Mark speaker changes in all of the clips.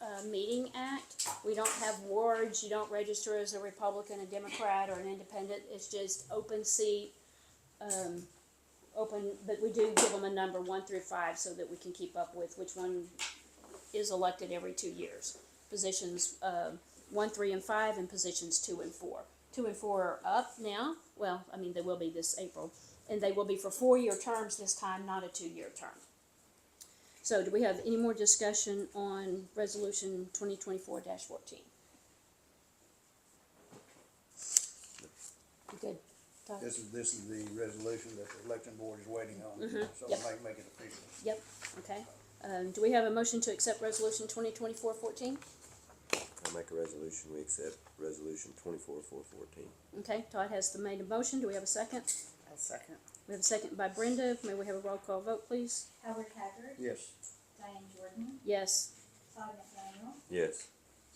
Speaker 1: uh, Meeting Act. We don't have wards, you don't register as a Republican, a Democrat, or an independent, it's just open seat. Um, open, but we do give them a number, one through five, so that we can keep up with which one is elected every two years. Positions, uh, one, three, and five, and positions two and four. Two and four are up now, well, I mean, they will be this April, and they will be for four-year terms this time, not a two-year term. So do we have any more discussion on resolution twenty twenty-four fourteen? Good. Todd?
Speaker 2: This is, this is the resolution that the election board is waiting on, so
Speaker 1: yep.
Speaker 2: make, make it official.
Speaker 1: Yep, okay. Um, do we have a motion to accept resolution twenty twenty-four fourteen?
Speaker 3: I make a resolution, we accept resolution twenty-four, four fourteen.
Speaker 1: Okay, Todd has the made a motion. Do we have a second?
Speaker 4: I'll second.
Speaker 1: We have a second by Brenda. May we have a roll call vote, please?
Speaker 5: Howard Haggard,
Speaker 2: Yes,
Speaker 5: Diane Jordan,
Speaker 1: Yes.
Speaker 5: Todd McDaniel,
Speaker 3: Yes,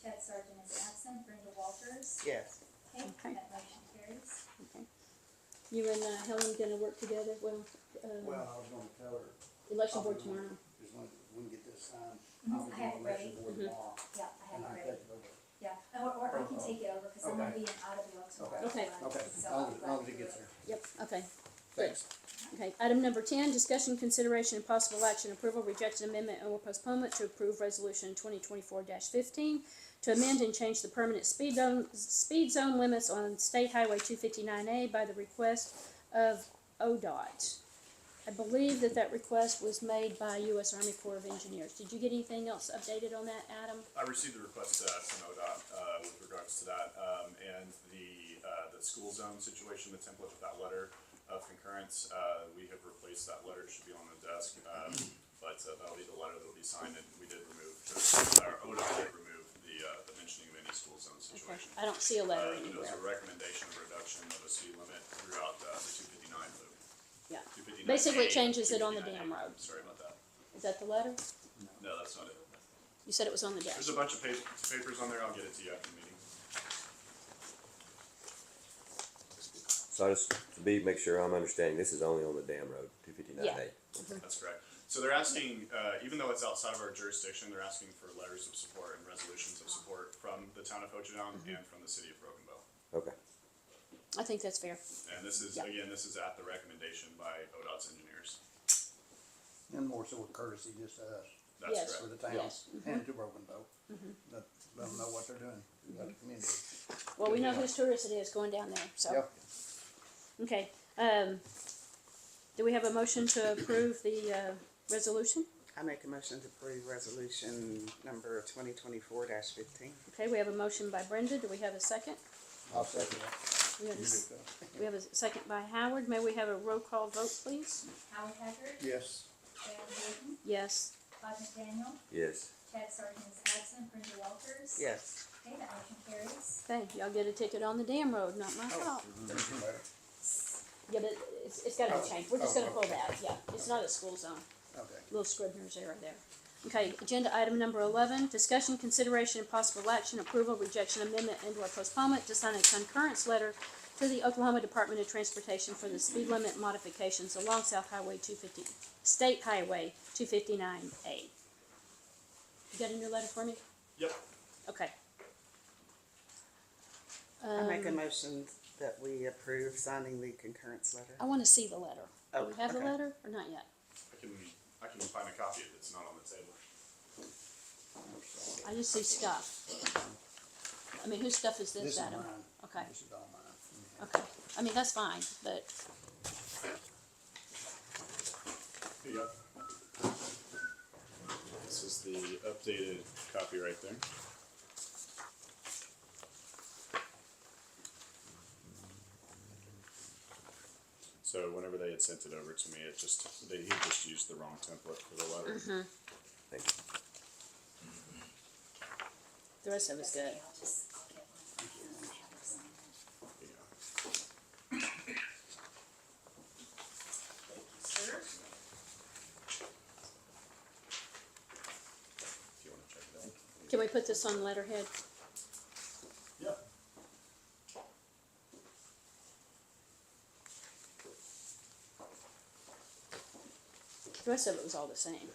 Speaker 5: Chad Sargent is absent, Brenda Walters.
Speaker 4: Yes.
Speaker 5: Okay,
Speaker 1: Okay.
Speaker 5: that motion carries.
Speaker 1: You and uh, Helen gonna work together? Well,
Speaker 2: well,
Speaker 1: um,
Speaker 2: I was gonna tell her,
Speaker 1: election board tomorrow. Mm-hmm.
Speaker 2: as long as we can get this signed,
Speaker 5: Mhm,
Speaker 2: I'll
Speaker 5: I
Speaker 2: be on
Speaker 5: have it
Speaker 2: election
Speaker 5: ready.
Speaker 2: board
Speaker 1: Mhm.
Speaker 2: tomorrow.
Speaker 5: Yeah, I have
Speaker 2: And
Speaker 5: it
Speaker 2: I
Speaker 5: ready.
Speaker 2: take it over.
Speaker 5: Yeah, or, or I can take it over because I'm gonna
Speaker 2: Okay.
Speaker 5: be in out of the election.
Speaker 2: Okay.
Speaker 1: Okay.
Speaker 2: Okay,
Speaker 5: So
Speaker 2: as
Speaker 5: I'll
Speaker 2: long as, as long as it
Speaker 5: grab
Speaker 2: gets
Speaker 5: it.
Speaker 2: there.
Speaker 1: Yep, okay.
Speaker 2: Thanks.
Speaker 1: Okay, item number ten, discussion, consideration, and possible action, approval, rejection, amendment, or postponement to approve resolution twenty twenty-four fifteen to amend and change the permanent speed zone, speed zone limits on State Highway two fifty-nine A by the request of ODOT. I believe that that request was made by U.S. Army Corps of Engineers. Did you get anything else updated on that, Adam?
Speaker 6: I received a request uh, from ODOT uh, with regards to that, um, and the, uh, the school zone situation, the template of that letter of concurrence, uh, we have replaced that letter, it should be on the desk, um, but uh, that'll be the letter that'll be signed, and we did remove, our ODOT did remove the, uh, the mentioning of any school zone
Speaker 1: Okay,
Speaker 6: situation.
Speaker 1: I don't see a letter
Speaker 6: Uh, and It was
Speaker 1: anywhere.
Speaker 6: a recommendation of reduction of a speed limit throughout uh, the two fifty-nine loop.
Speaker 1: Yeah.
Speaker 6: 259A,
Speaker 1: Basically, it changes it on the damn
Speaker 6: 259A.
Speaker 1: road.
Speaker 6: Sorry about that.
Speaker 1: Is that the letter?
Speaker 6: No, that's not it.
Speaker 1: You said it was on the desk.
Speaker 6: There's a bunch of pa- papers on there, I'll get it to you after the meeting.
Speaker 3: so I just, to be, make sure I'm understanding, this is only on the dam road, two fifty-nine
Speaker 1: Yeah.
Speaker 3: A.
Speaker 6: That's correct. So they're asking, uh, even though it's outside of our jurisdiction, they're asking for letters of support and resolutions of support from the town of Ho Chi Minh
Speaker 1: Mm-hmm.
Speaker 6: and from the city of Broken Bow.
Speaker 3: Okay,
Speaker 1: I think that's fair.
Speaker 6: And this is,
Speaker 1: Yeah.
Speaker 6: again, this is at the recommendation by ODOT's engineers.
Speaker 2: And more so a courtesy just to us,
Speaker 1: Yes.
Speaker 6: That's
Speaker 2: for
Speaker 6: correct.
Speaker 2: the town,
Speaker 1: Yes. Mm-hmm.
Speaker 2: and to Broken Bow. Let, let them know what they're doing,
Speaker 1: Mm-hmm.
Speaker 2: let the community.
Speaker 1: Well, we know whose tourist it is going down there, so.
Speaker 2: Yeah,
Speaker 1: Okay, um, do we have a motion to approve the, uh, resolution?
Speaker 4: I make a motion to approve resolution number twenty twenty-four fifteen.
Speaker 1: Okay, we have a motion by Brenda, do we have a second?
Speaker 2: I'll second that.
Speaker 1: We have, a
Speaker 2: You
Speaker 1: s-
Speaker 2: do that.
Speaker 1: we have a second by Howard, may we have a roll call vote, please?
Speaker 5: Howard Haggard,
Speaker 2: Yes,
Speaker 5: Diane Jordan,
Speaker 1: Yes,
Speaker 5: Todd McDaniel,
Speaker 3: yes,
Speaker 5: Chad Sargent is absent, Brenda Walters.
Speaker 4: Yes.
Speaker 5: Okay, that motion carries.
Speaker 1: okay, y'all get a ticket on the damn road, not my fault.
Speaker 2: Mm-hmm.
Speaker 1: Yeah, but it's, it's gotta be changed, we're just gonna pull that, yeah, it's not a school zone.
Speaker 2: okay.
Speaker 1: little Scribner's error there. Okay, agenda item number eleven, discussion, consideration, and possible action, approval, rejection, amendment, and or postponement to sign a concurrence letter to the Oklahoma Department of Transportation for the speed limit modifications along South Highway two fifty, State Highway two fifty-nine A. You got a new letter for me?
Speaker 6: Yep,
Speaker 1: Okay.
Speaker 4: I make a
Speaker 1: Um,
Speaker 4: motion that we approve signing the concurrence
Speaker 1: I
Speaker 4: letter.
Speaker 1: wanna see the letter. Do we
Speaker 4: Oh,
Speaker 1: have the
Speaker 4: okay.
Speaker 1: letter or not yet?
Speaker 6: I can, I can find a copy if it's not on the table.
Speaker 1: I just see stuff. I mean, whose stuff is
Speaker 2: This
Speaker 1: this,
Speaker 2: is
Speaker 1: Adam?
Speaker 2: mine.
Speaker 1: Okay.
Speaker 2: This is all mine.
Speaker 1: Okay, I mean, that's fine, but,
Speaker 6: Here you go. This is the updated copy right there. So whenever they had sent it over to me, it just, they, he just used the wrong template for the letter.
Speaker 3: thank you.
Speaker 1: The rest of it's good.
Speaker 5: Okay, I'll just, I'll get one. I have it signed.
Speaker 6: Yeah.
Speaker 5: Thank you, sir.
Speaker 6: If you wanna check it out.
Speaker 1: Can we put this on letterhead?
Speaker 6: Yeah.
Speaker 1: The rest of it was all the same.